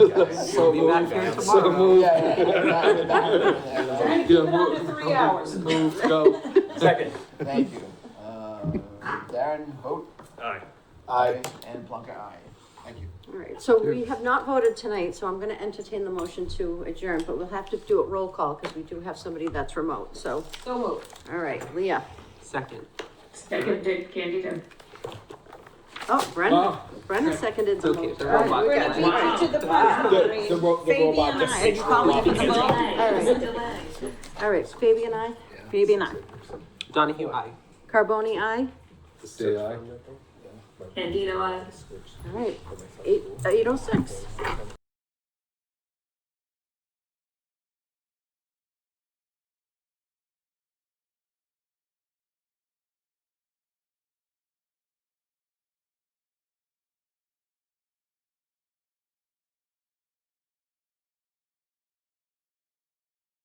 So Be back moved. here So tomorrow. moved. Yeah, yeah, yeah, yeah, yeah. Trying to keep it under three hours. Move, go. Second. Thank you. Um, Darren, vote. Aye. Aye. And Plunker, aye. Thank you. All right, so we have not voted tonight, so I'm gonna entertain the motion to adjourn, but we'll have to do it roll call, because we do have somebody that's remote, so, So moved. all right, Leah. Second. Seconded, Candida. Oh, Brendan, Wow. Brendan seconded the Okay, motion. the robot All right, guy. we got it. Wow. to the The, the ro- the robot just I. fixed the Call robot. it a vote. All right. delay. All right, Fabian, I, Maybe not. Donahue, aye. Carboni, I, Say aye. Candida, I. all right, eight, eight oh uh, six.